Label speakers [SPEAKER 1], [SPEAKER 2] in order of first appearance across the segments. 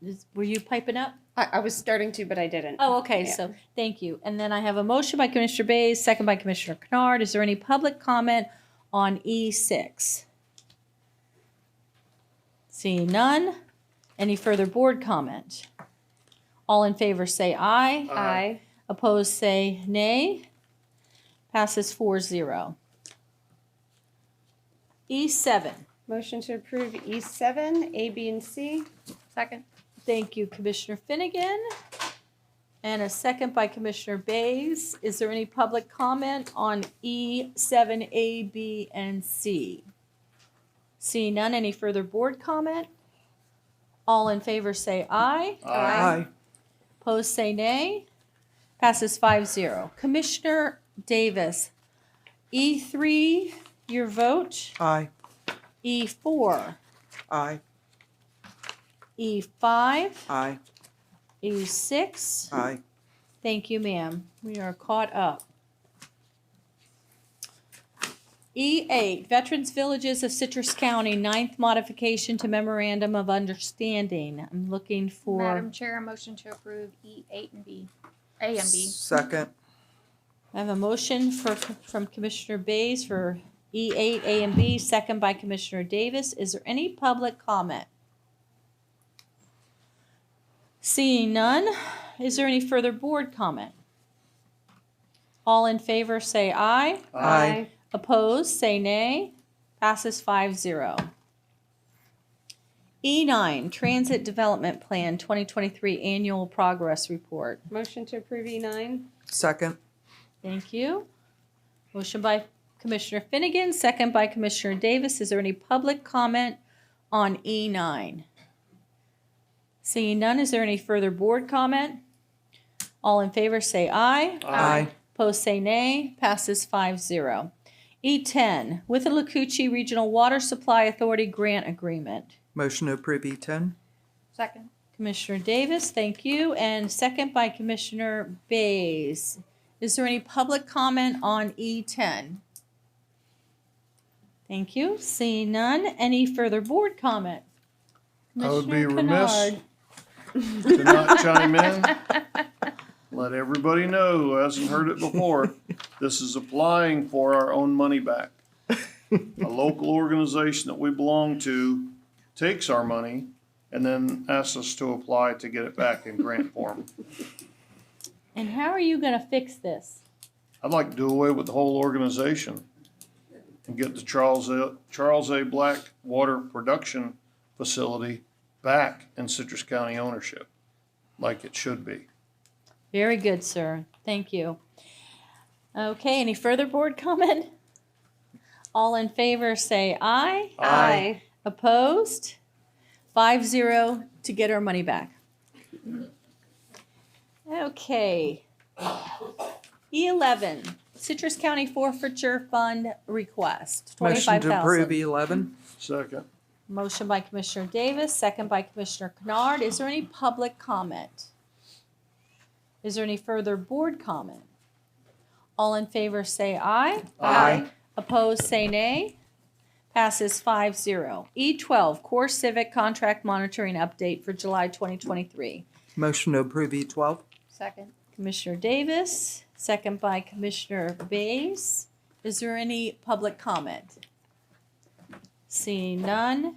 [SPEAKER 1] is, were you piping up?
[SPEAKER 2] I, I was starting to, but I didn't.
[SPEAKER 1] Oh, okay,
[SPEAKER 2] Yeah.
[SPEAKER 1] so, thank you. And then I have a motion by Commissioner Bays, second by Commissioner Kennard. Is there any public comment on E E6? Seeing none. Any further board comment? All in favor, say aye.
[SPEAKER 2] I
[SPEAKER 1] Opposed, say nay. Passes four zero. E E7.
[SPEAKER 2] motion to approve E seven, A, B, and C. Second.
[SPEAKER 1] Thank you, Commissioner Finnegan. And a second by Commissioner Bays. Is there any public comment on E, seven, A, B, and C? Seeing none, any further board comment? All in favor say aye.
[SPEAKER 2] Aye.
[SPEAKER 1] Opposed say nay. Passes five zero. Commissioner Davis, E three, your vote.
[SPEAKER 3] Aye.
[SPEAKER 1] E four,
[SPEAKER 3] Aye.
[SPEAKER 1] E five,
[SPEAKER 3] Aye.
[SPEAKER 1] E six.
[SPEAKER 3] Aye.
[SPEAKER 1] Thank you, ma'am. We are caught up. E8, E Veterans Villages of Citrus County, ninth modification to memorandum of understanding. I'm looking for,
[SPEAKER 4] Madam Chair, a motion to approve E eight and B, A and B.
[SPEAKER 3] Second.
[SPEAKER 1] I have a motion for, from Commissioner Bays for E8, A and B, second by Commissioner Davis. Is there any public comment? Seeing none, is there any further board comment? All in favor, say aye.
[SPEAKER 3] Aye.
[SPEAKER 1] Opposed, say nay. Passes 5-0. E9, E Transit Development Plan 2023 Annual Progress Report.
[SPEAKER 2] Motion to approve E nine.
[SPEAKER 3] Second.
[SPEAKER 1] Thank you. Motion by Commissioner Finnegan, second by Commissioner Davis. Is there any public comment on E9? Seeing none, is there any further board comment? All in favor, say aye.
[SPEAKER 3] Aye.
[SPEAKER 1] Opposed say nay. Passes 5-0. E10, with the Lakuchi Regional Water Supply Authority Grant Agreement.
[SPEAKER 3] Motion to approve E E10.
[SPEAKER 4] Second.
[SPEAKER 1] Commissioner Davis, thank you, and second by Commissioner Bays. Is there any public comment on E10? Thank you. Seeing none. Any further board comment?
[SPEAKER 5] I would be
[SPEAKER 1] Commissioner
[SPEAKER 5] remiss
[SPEAKER 1] Kennard.
[SPEAKER 5] to not chime in. Let everybody know who hasn't heard it before, this is applying for our own money back. A local organization that we belong to takes our money and then asks us to apply to get it back in grant form.
[SPEAKER 1] And how are you going to fix this?
[SPEAKER 5] I'd like to do away with the whole organization and get the Charles A, Charles A. Black Water Production Facility back in Citrus County ownership, like it should be.
[SPEAKER 1] Very good, sir. Thank you. Okay, any further board comment? All in favor, say aye.
[SPEAKER 2] Aye.
[SPEAKER 1] Opposed? Five zero to get our money back. Okay. E11, Citrus County Forfeiture Fund Request,
[SPEAKER 3] Motion to approve E
[SPEAKER 1] 25,000.
[SPEAKER 3] E11.
[SPEAKER 5] Second.
[SPEAKER 1] Motion by Commissioner Davis, second by Commissioner Kennard. Is there any public comment? Is there any further board comment? All in favor, say aye.
[SPEAKER 2] Aye.
[SPEAKER 1] Opposed, say nay. Passes 5-0. E12, Core Civic Contract Monitoring Update for July 2023.
[SPEAKER 3] Motion to approve E E12.
[SPEAKER 4] Second.
[SPEAKER 1] Commissioner Davis, second by Commissioner Bays. Is there any public comment? Seeing none.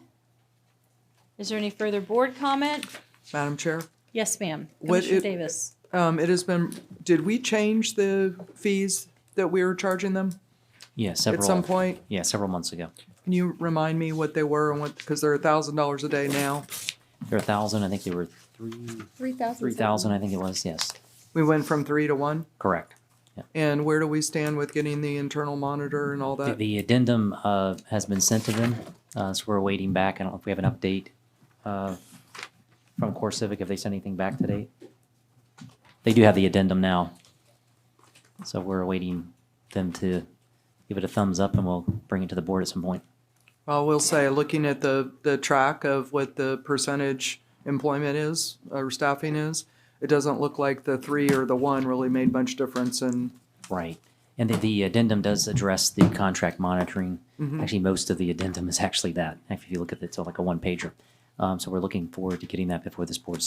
[SPEAKER 1] Is there any further board comment?
[SPEAKER 3] Madam Chair,
[SPEAKER 1] Yes, ma'am.
[SPEAKER 3] What
[SPEAKER 1] Commissioner
[SPEAKER 3] it-
[SPEAKER 1] Davis.
[SPEAKER 3] um, it has been, did we change the fees that we were charging them
[SPEAKER 6] Yeah, several.
[SPEAKER 3] at some point?
[SPEAKER 6] Yeah, several months ago.
[SPEAKER 3] Can you remind me what they were and what, because they're a thousand dollars a day now.
[SPEAKER 6] There were a thousand. I think they were three,
[SPEAKER 2] Three thousand.
[SPEAKER 6] three thousand. I think it was. Yes,
[SPEAKER 3] We went from three to one.
[SPEAKER 6] correct.
[SPEAKER 3] And where do we stand with getting the internal monitor and all
[SPEAKER 6] The,
[SPEAKER 3] that?
[SPEAKER 6] the addendum uh, has been sent to them, uh, so we're waiting back. I don't know if we have an update uh, from Core Civic if they sent anything back today. They do have the addendum now, so we're awaiting them to give it a thumbs up, and we'll bring it to the board at some point.
[SPEAKER 3] Well, we'll say, looking at the, the track of what the percentage employment is, or staffing is, it doesn't look like the three or the one really made much difference in,
[SPEAKER 6] Right. And the, the addendum does address the contract monitoring. Actually, most of the addendum is actually that. If you look at it, it's like a one pager. Um, So we're looking forward to getting that before this board